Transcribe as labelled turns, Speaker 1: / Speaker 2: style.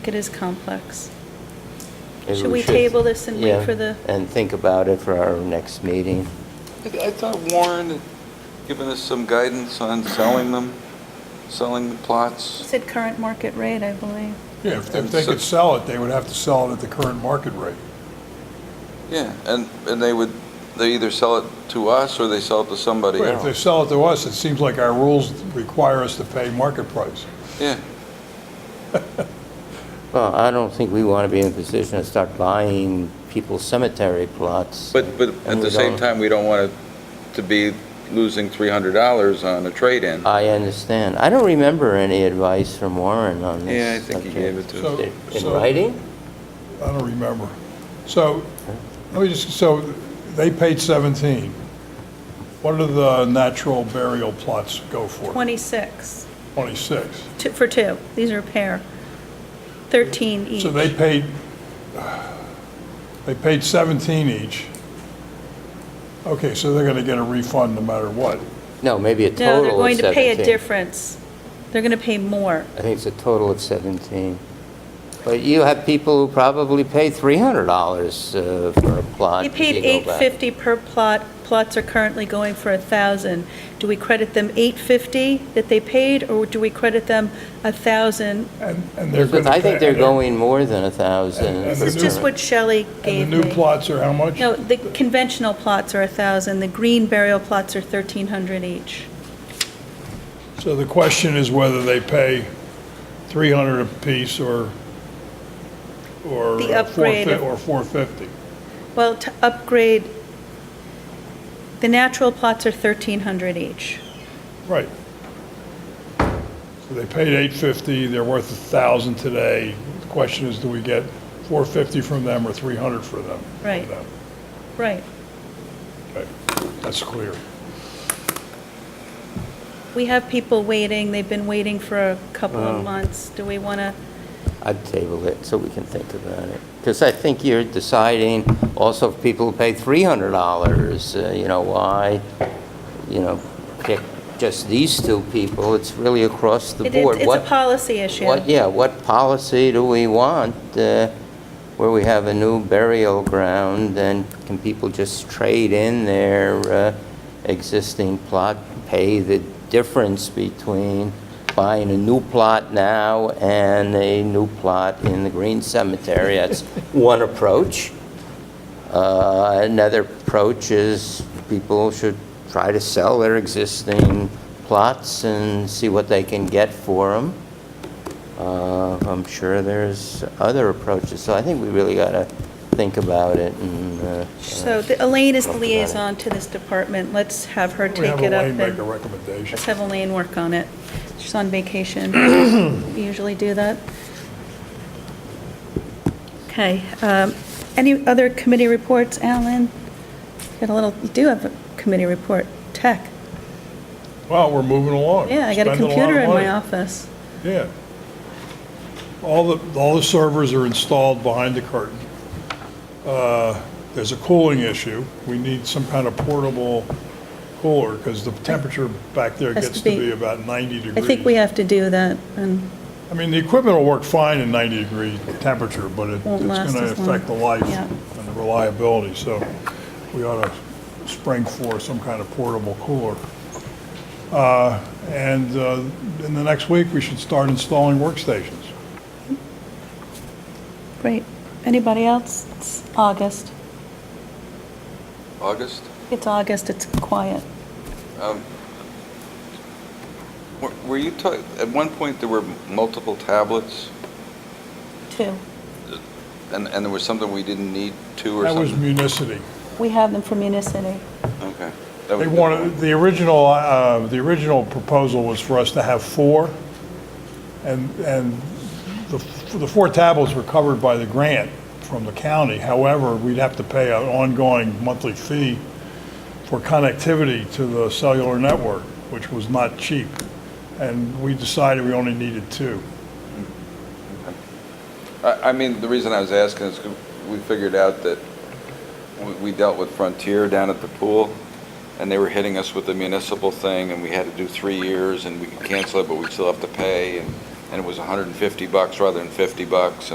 Speaker 1: It is complex.
Speaker 2: Maybe
Speaker 1: Should we table this and wait
Speaker 2: yeah,
Speaker 1: for the-
Speaker 2: And think about it for our next meeting.
Speaker 3: I I thought Warren had given us some guidance on selling them, selling the
Speaker 1: It
Speaker 3: plots.
Speaker 1: said current market rate, I believe.
Speaker 4: Yeah, if if they could sell it, they would have to sell it at the current market rate.
Speaker 3: Yeah, and, and they would, they either sell it to us or they sell it to somebody
Speaker 4: But if they
Speaker 3: else.
Speaker 4: sell it to us, it seems like our rules require us to pay market price.
Speaker 3: Yeah,
Speaker 2: Well, I don't think we want to be in a position to start buying people's cemetery plots.
Speaker 3: but, but
Speaker 2: and
Speaker 3: at
Speaker 2: we
Speaker 3: the same
Speaker 2: don't-
Speaker 3: time, we don't want it to be losing $300 on a trade-in.
Speaker 2: I understand. I don't remember any advice from Warren on this.
Speaker 3: Yeah, I think he
Speaker 2: subject.
Speaker 3: gave it to us.
Speaker 4: So-
Speaker 2: In
Speaker 4: so-
Speaker 2: writing?
Speaker 4: I don't remember. So, let me just, so they paid 17. What do the natural burial plots go for?
Speaker 1: 26,
Speaker 4: 26.
Speaker 1: two- for two. These are a pair. 13 each.
Speaker 4: So they paid, they paid 17 each. Okay, so they're going to get a refund no matter what.
Speaker 2: No, maybe a total
Speaker 1: No,
Speaker 2: of
Speaker 1: they're going to pay a
Speaker 2: 17.
Speaker 1: difference. They're going to pay more.
Speaker 2: I think it's a total of 17. But you have people who probably pay $300 uh, for a plot.
Speaker 1: They
Speaker 2: if
Speaker 1: paid
Speaker 2: you go back.
Speaker 1: 850 per plot. Plots are currently going for a 1,000. Do we credit them 850 that they paid, or do we credit them a 1,000?
Speaker 4: And, and they're going to
Speaker 2: I think they're going more than a 1,000.
Speaker 4: And- and
Speaker 2: for
Speaker 1: It's just
Speaker 2: current.
Speaker 1: what Shelley gave
Speaker 4: And
Speaker 1: me.
Speaker 4: the new plots are how much?
Speaker 1: No, the conventional plots are a 1,000. The green burial plots are 1,300 each.
Speaker 4: So the question is whether they pay 300 apiece or, or
Speaker 1: The upgrade
Speaker 4: 450
Speaker 1: of-
Speaker 4: or 450.
Speaker 1: Well, to upgrade, the natural plots are 1,300 each.
Speaker 4: Right. So they paid 850, they're worth 1,000 today. The question is, do we get 450 from them or 300 for them? from
Speaker 1: Right.
Speaker 4: them?
Speaker 1: Right.
Speaker 4: Okay, That's clear.
Speaker 1: We have people waiting, they've been waiting for a couple of months. Do we want to,
Speaker 2: I'd table it so we can think about it. Because I think you're deciding also if people pay $300, uh, you know, why, you know, pick just these two people, it's really across the
Speaker 1: It- it-
Speaker 2: board.
Speaker 1: it's a
Speaker 2: What-
Speaker 1: policy issue.
Speaker 2: What, yeah, what policy do we want uh, where we have a new burial ground and can people just trade in their uh, existing plot, pay the difference between buying a new plot now and a new plot in the Green Cemetery? That's one approach. Uh, Another approach is people should try to sell their existing plots and see what they can get for them. Uh, I'm sure there's other approaches, so I think we really got to think about it and... uh,
Speaker 1: so the- Elaine is the
Speaker 2: talk about it.
Speaker 1: liaison to this department, let's have her
Speaker 4: We have
Speaker 1: take it up.
Speaker 4: Elaine
Speaker 1: and
Speaker 4: make a recommendation.
Speaker 1: Let's have Elaine work on it. She's on vacation, we usually do that. Okay, um, any other committee reports, Alan? Got a little, you do have a committee report, tech.
Speaker 4: Wow, we're moving along.
Speaker 1: Yeah, I got a
Speaker 4: Spending lot
Speaker 1: computer
Speaker 4: of
Speaker 1: in my
Speaker 4: money.
Speaker 1: office.
Speaker 4: Yeah. All the, all the servers are installed behind the curtain. Uh, There's a cooling issue. We need some kind of portable cooler because the temperature back there
Speaker 1: Has to
Speaker 4: gets to
Speaker 1: be-
Speaker 4: be about 90 degrees.
Speaker 1: I think we have to do that, and
Speaker 4: I mean, the equipment will work fine in 90-degree temperature, but it- it's
Speaker 1: Won't last
Speaker 4: going to
Speaker 1: as long.
Speaker 4: affect the life
Speaker 1: Yeah.
Speaker 4: and the reliability, so we ought to spring for some kind of portable cooler. Uh, And uh, in the next week, we should start installing workstations.
Speaker 1: great. Anybody else? It's August.
Speaker 3: August?
Speaker 1: It's August, it's quiet.
Speaker 3: Um, were- Were you, ta- at one point, there were multiple tablets,
Speaker 1: Two.
Speaker 3: and, and there was something we didn't need two or
Speaker 4: That was
Speaker 3: something?
Speaker 4: municity.
Speaker 1: We have them for Municity.
Speaker 3: Okay. That was-
Speaker 4: They wanted, the original, uh, the original proposal was for us to have four, and, and the, f- the four tablets were covered by the grant from the county. However, we'd have to pay an ongoing monthly fee for connectivity to the cellular network, which was not cheap. And we decided we only needed two.
Speaker 3: I, I mean, the reason I was asking is 'cause we figured out that we- we dealt with Frontier down at the pool, and they were hitting us with the municipal thing, and we had to do three years, and we could cancel it, but we still have to pay, and and it was 150 bucks rather than 50 bucks,